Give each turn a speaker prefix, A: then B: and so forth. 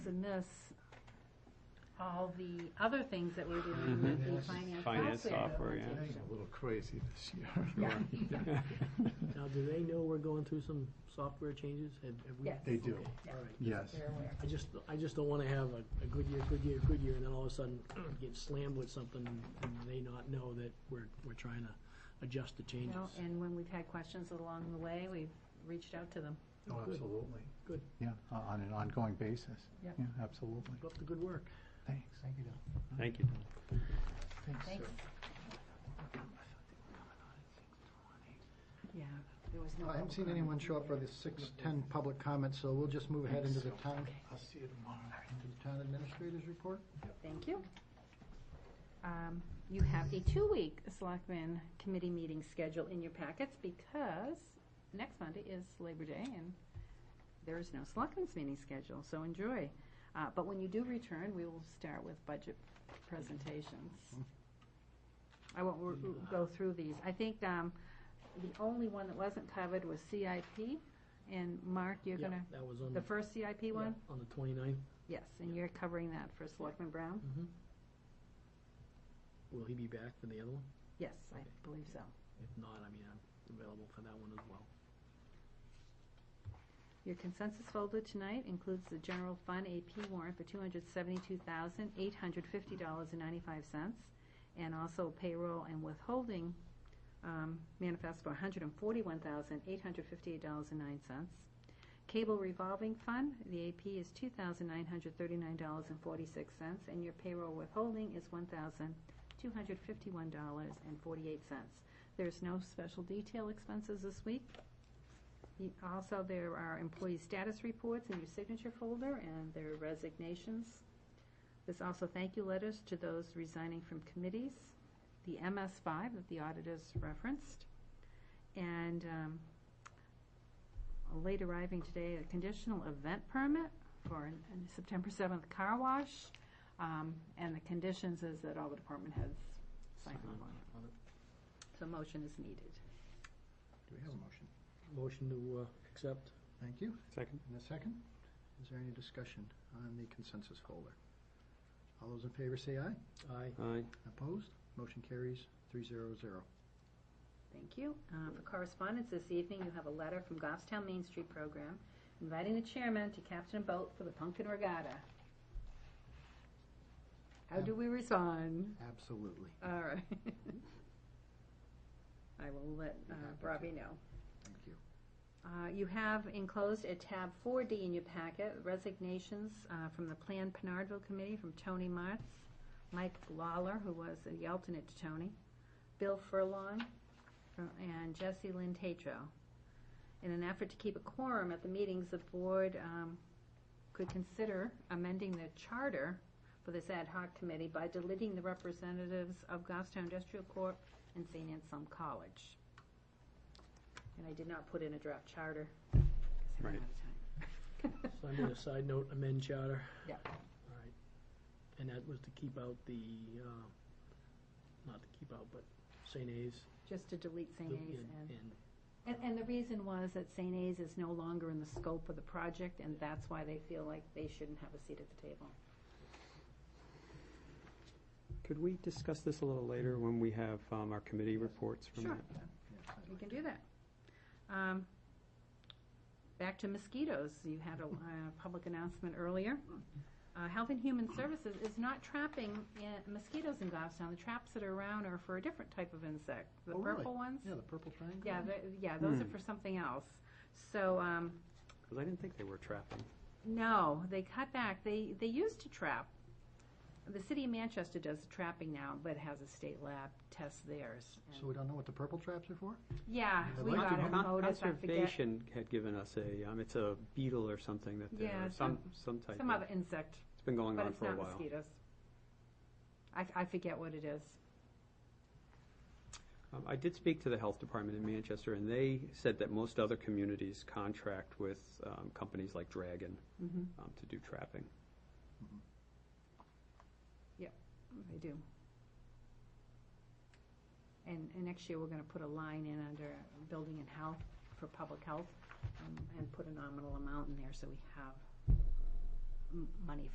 A: miss all the other things that we're doing with
B: Mhm.
A: the finance software.
B: Finance software, yeah.
C: Things are a little crazy this
A: Yeah.
C: year.
D: Now, do they know we're going through some software changes? Have- have we-
A: Yes.
C: They do.
D: Okay, All right.
C: Yes.
A: They're aware.
D: I just, I just don't want to have a, a good year, good year, good year, and then all of a sudden get slammed with something and they not know that we're, we're trying to adjust the changes.
A: No, And when we've had questions along the way, we've reached out to them.
C: Oh,
D: Good.
C: absolutely.
D: Good.
C: Yeah, o- on an ongoing basis.
A: Yeah.
C: absolutely.
D: Keep up the good work.
C: Thanks. Thank you.
B: Thank you.
A: Thanks. Yeah, there was no.
E: I haven't
A: public
E: seen
A: comment.
E: anyone show up for the six-ten public comments, so we'll just move ahead into the town,
C: I'll see you tomorrow.
E: into the town administrator's report.
A: Thank you. Um, You have a two-week Selectmen Committee meeting schedule in your packets because next Monday is Labor Day and there is no Selectmen's meeting schedule, so enjoy. Uh, But when you do return, we will start with budget presentations. I won't r- r- go through these. I think um, the only one that wasn't covered was CIP. And Mark, you're
D: Yeah,
A: gonna,
D: That was on.
A: the first CIP one?
D: yeah, On the twenty-ninth. Mm-hmm.
A: Yes, and you're covering that for Selectman Brown?
D: Will he be back for the other one?
A: Yes, I
D: Okay.
A: believe so.
D: If not, I mean, I'm available for that one as well.
A: Your consensus folder tonight includes the general fund AP warrant for two hundred seventy-two thousand, eight hundred fifty dollars and ninety-five cents, and also payroll and withholding, um, manifest for one hundred and forty-one thousand, eight hundred fifty-eight dollars and nine cents. Cable revolving fund, the AP is two thousand, nine hundred thirty-nine dollars and forty-six cents, and your payroll withholding is one thousand, two hundred fifty-one dollars and forty-eight cents. There's no special detail expenses this week. You- Also, there are employee status reports in your signature folder, and there are resignations. There's also thank you letters to those resigning from committees, the MS5 that the auditors referenced, and um, late arriving today, a conditional event permit for an- an September 7th car wash, Um, and the conditions is that all the department heads sign off on it. So motion is needed.
E: Do we have a motion?
D: Motion to, uh, accept.
E: Thank you.
B: Second?
E: And a second? Is there any discussion on the consensus folder? All those in favor say aye.
D: Aye.
B: Aye.
E: Opposed? Motion carries three zero zero.
A: Thank you. Uh, For correspondence this evening, you have a letter from Goffstown Main Street Program inviting the chairman to captain a boat for the Pumpkin Regatta. How do we respond?
E: Absolutely.
A: All right. I will let uh, Robbie know.
E: Thank you.
A: Uh, You have enclosed at tab 4D in your packet resignations uh, from the Planned Penardville Committee from Tony Martz, Mike Lawler, who was the alternate to Tony, Bill Furlong, uh, and Jesse Lynn Tatro. In an effort to keep a quorum at the meetings, the board um, could consider amending the charter for this ad hoc committee by deleting the representatives of Goffstown Industrial Corp. and St. Anselm College. And I did not put in a draft charter. 'cause I ran
B: Right.
A: out of time.
D: So I made a side note, amend charter.
A: Yeah.
D: All right. And that was to keep out the, uh, not to keep out, but St. A's.
A: Just to delete St.
D: the-
A: A's and
D: and-
A: And, and the reason was that St. A's is no longer in the scope of the project, and that's why they feel like they shouldn't have a seat at the table.
B: Could we discuss this a little later when we have um, our committee reports from
A: Sure.
B: that?
E: Yes, I'd
A: We
E: like
A: can
E: to-
A: do that. Um, Back to mosquitoes, you had a uh, public announcement earlier. Uh, Health and Human Services is not trapping in- mosquitoes in Goffstown. The traps that are around are for a different type of insect, the
E: Oh, really?
A: purple ones.
E: Yeah, the purple triangle.
A: Yeah, the- yeah, those are
B: Hmm.
A: for something else. So, um,
B: Because I didn't think they were trapping.
A: No, they cut back. They they used to trap. The city of Manchester does the trapping now, but has a state lab test theirs.
E: So we don't know what the purple traps are for?
A: yeah,
E: I'd
A: we got
E: like to
A: a
E: know.
B: Con-
A: notice. I forget
B: Conservation had given us a, um, it's a beetle or something that, they-
A: Yeah,
B: or some, some type
A: some
B: of,
A: other insect,
B: it's been going
A: but
B: on
A: it's
B: for a
A: not
B: while.
A: mosquitoes. I, I forget what it is.
B: Um, I did speak to the health department in Manchester, and they said that most other communities contract with um, companies like Dragon
A: Mm-hmm.
B: um, to do trapping.
A: They do. And, and next year, we're gonna put a line in under building and health for public health, um, and put a nominal amount in there, so we have m- money